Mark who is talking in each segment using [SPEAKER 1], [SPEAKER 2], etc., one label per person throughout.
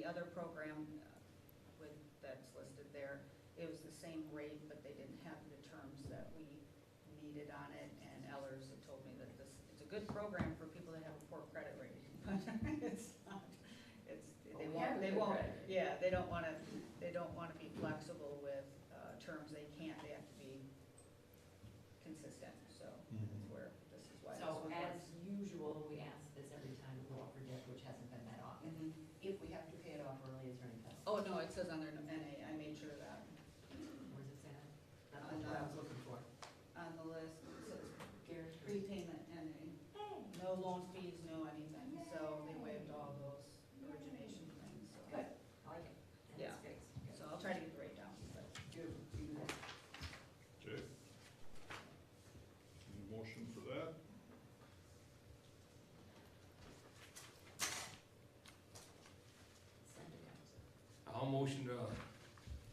[SPEAKER 1] other program uh, with, that's listed there, it was the same rate, but they didn't have the terms that we needed on it, and Ellers had told me that this, it's a good program for people that have a poor credit rating, but it's not, it's, they
[SPEAKER 2] Well, we
[SPEAKER 1] won't,
[SPEAKER 2] have a
[SPEAKER 1] they
[SPEAKER 2] good
[SPEAKER 1] won't,
[SPEAKER 2] credit rating.
[SPEAKER 1] yeah, they don't wanna, they don't wanna be flexible with, uh, terms they can't, they have to be consistent, so that's
[SPEAKER 3] Mhm.
[SPEAKER 1] where, this is why this
[SPEAKER 2] So
[SPEAKER 1] one works.
[SPEAKER 2] as usual, we ask this every time we go up for debt, which hasn't been that often.
[SPEAKER 1] Mhm.
[SPEAKER 2] If we have to pay it off early, is there any penalty?
[SPEAKER 1] Oh, no, it says on there, no NA, I made sure of that.
[SPEAKER 2] Where's it at?
[SPEAKER 1] Uh,
[SPEAKER 2] That's what I was looking for.
[SPEAKER 1] On the list, it says
[SPEAKER 2] Gary.
[SPEAKER 1] prepayment NA, no loan fees, no anything, so they waived all those origination things,
[SPEAKER 2] Good,
[SPEAKER 1] so.
[SPEAKER 2] I like it. And
[SPEAKER 1] Yeah.
[SPEAKER 2] it's fixed. Good.
[SPEAKER 1] So I'll try to get the rate down, but
[SPEAKER 2] Do, do that.
[SPEAKER 3] Okay. Need a motion for that?
[SPEAKER 2] Send it out.
[SPEAKER 4] I'll motion to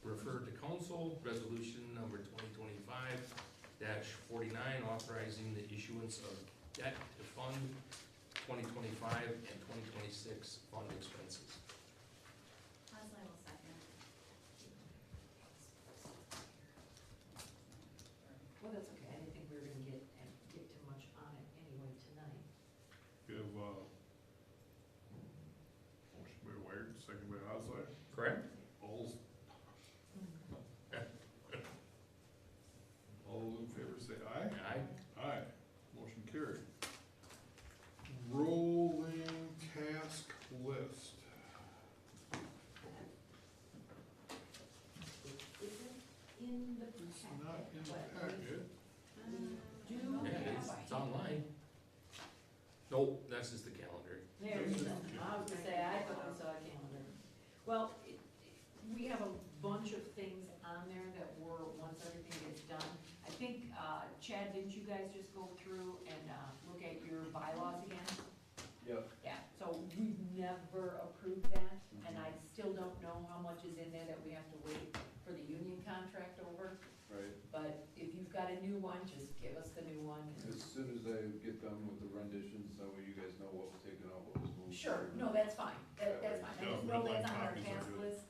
[SPEAKER 4] refer to council, resolution number twenty twenty-five forty-nine, authorizing the issuance of debt to fund twenty twenty-five and twenty twenty-six fund expenses.
[SPEAKER 5] Leslie will second.
[SPEAKER 2] Well, that's okay, I didn't think we were gonna get, get too much on it anyway tonight.
[SPEAKER 3] Give, uh, motion by Wired, second by Osley.
[SPEAKER 4] Correct?
[SPEAKER 3] All, all those in favor say aye.
[SPEAKER 4] Aye.
[SPEAKER 3] Aye. Motion carried. Rolling task list.
[SPEAKER 2] It isn't in the
[SPEAKER 3] It's not in
[SPEAKER 2] packet,
[SPEAKER 3] the
[SPEAKER 2] but
[SPEAKER 3] packet.
[SPEAKER 2] we do
[SPEAKER 4] Yeah, It's
[SPEAKER 2] have.
[SPEAKER 4] it's online. Nope, that's just the calendar.
[SPEAKER 2] There you go. I was gonna say, I thought I saw a calendar. Well, it- it- we have a bunch of things on there that were, once everything gets done. I think, uh, Chad, didn't you guys just go through and uh, look at your bylaws again?
[SPEAKER 6] Yep.
[SPEAKER 2] Yeah, so we've never approved that, and I still don't know how much is in there that we have to wait for the union contract over.
[SPEAKER 6] Right,
[SPEAKER 2] But if you've got a new one, just give us the new one.
[SPEAKER 6] as soon as I get done with the renditions, that way you guys know what was taken out, what was moved.
[SPEAKER 2] Sure, no, that's fine, that, that's fine, I just
[SPEAKER 3] Yeah,
[SPEAKER 2] know
[SPEAKER 3] red line
[SPEAKER 2] that's on our
[SPEAKER 3] copies are
[SPEAKER 2] task
[SPEAKER 3] good.
[SPEAKER 2] list,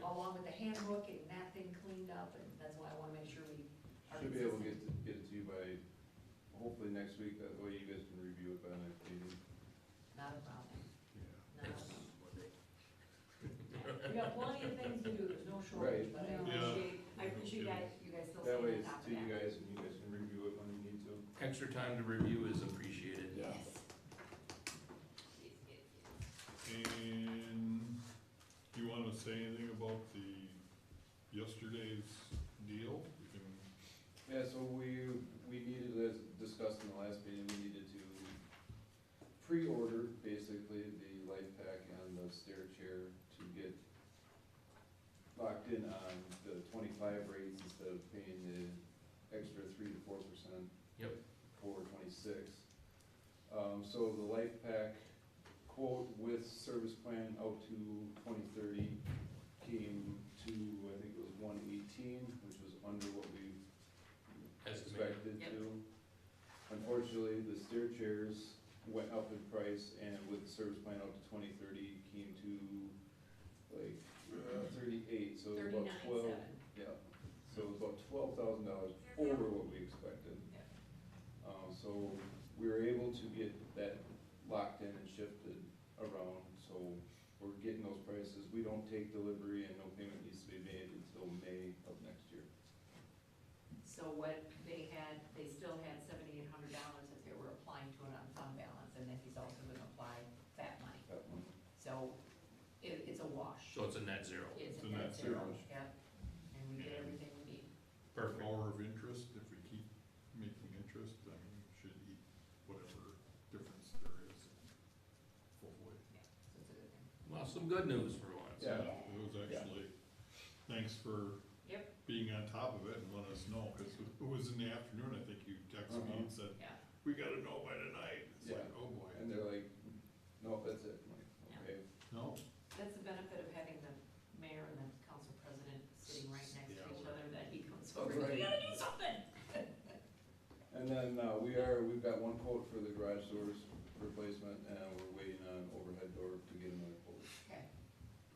[SPEAKER 2] along with the handbook, getting that thing cleaned up, and that's why I wanna make sure we are
[SPEAKER 6] Should be able to
[SPEAKER 2] consistent.
[SPEAKER 6] get, to- get it to you by, hopefully next week, that way you guys can review it by next meeting.
[SPEAKER 2] Not a problem,
[SPEAKER 3] Yeah.
[SPEAKER 2] not a
[SPEAKER 4] Next
[SPEAKER 2] problem.
[SPEAKER 4] Monday.
[SPEAKER 2] We got plenty of things to do, there's no shortage,
[SPEAKER 6] Right.
[SPEAKER 2] but I
[SPEAKER 5] Yeah.
[SPEAKER 2] appreciate, I appreciate guys, you guys still
[SPEAKER 6] That way
[SPEAKER 2] staying on
[SPEAKER 6] it's
[SPEAKER 2] top
[SPEAKER 6] to
[SPEAKER 2] of
[SPEAKER 6] you
[SPEAKER 2] that.
[SPEAKER 6] guys, and you guys can review it when you need to.
[SPEAKER 4] Extra time to review is appreciated.
[SPEAKER 6] Yeah.
[SPEAKER 2] Yes. Yes, yes, yes.
[SPEAKER 3] And do you wanna say anything about the yesterday's deal? We can
[SPEAKER 6] Yeah, so we, we needed, as discussed in the last meeting, we needed to pre-order basically the life pack and the stair chair to get locked in on the twenty-five rates instead of paying the extra three to four percent
[SPEAKER 4] Yep.
[SPEAKER 6] for twenty-six. Um, so the life pack quote with service plan out to twenty thirty came to, I think it was one eighteen, which was under what we
[SPEAKER 4] Estimated.
[SPEAKER 6] expected
[SPEAKER 2] Yep.
[SPEAKER 6] to. Unfortunately, the stair chairs went up in price and with the service plan out to twenty thirty came to like uh, thirty-eight, so it was about
[SPEAKER 2] Thirty-nine,
[SPEAKER 6] twelve.
[SPEAKER 2] seven.
[SPEAKER 6] Yeah, so it was about twelve thousand dollars over what we expected.
[SPEAKER 2] Yeah.
[SPEAKER 6] Um, so we were able to get that locked in and shifted around, so we're getting those prices. We don't take delivery and no payment needs to be made until May of next year.
[SPEAKER 2] So what they had, they still had seventy-eight hundred dollars that they were applying to an unfund balance, and then he's also gonna apply that money.
[SPEAKER 6] That one.
[SPEAKER 2] So it, it's a wash.
[SPEAKER 4] So it's a net zero.
[SPEAKER 2] It's
[SPEAKER 3] It's
[SPEAKER 2] a
[SPEAKER 3] a
[SPEAKER 2] net
[SPEAKER 3] net
[SPEAKER 2] zero,
[SPEAKER 6] zero.
[SPEAKER 2] yep. And we get everything we need.
[SPEAKER 3] per
[SPEAKER 4] Perfect.
[SPEAKER 3] hour of interest, if we keep making interest, I mean, we should eat whatever difference there is. Hopefully.
[SPEAKER 2] Yeah, so it's a good thing.
[SPEAKER 4] Well, some good news for once.
[SPEAKER 6] Yeah.
[SPEAKER 3] It was actually, thanks for
[SPEAKER 2] Yep,
[SPEAKER 3] being on top of it and letting us know, because it was in the afternoon, I think you texted me and said,
[SPEAKER 2] yeah.
[SPEAKER 3] we gotta know by tonight. It's like,
[SPEAKER 6] Uh-huh. Yeah.
[SPEAKER 3] oh boy.
[SPEAKER 6] And they're like, no, that's it, I'm
[SPEAKER 2] Yeah.
[SPEAKER 6] like, okay.
[SPEAKER 3] No,
[SPEAKER 2] That's the benefit of having the mayor and the council president sitting right next to each other, that he comes over, we gotta do something.
[SPEAKER 6] And then, uh, we are, we've got one quote for the garage doors replacement, and we're waiting on overhead door to get another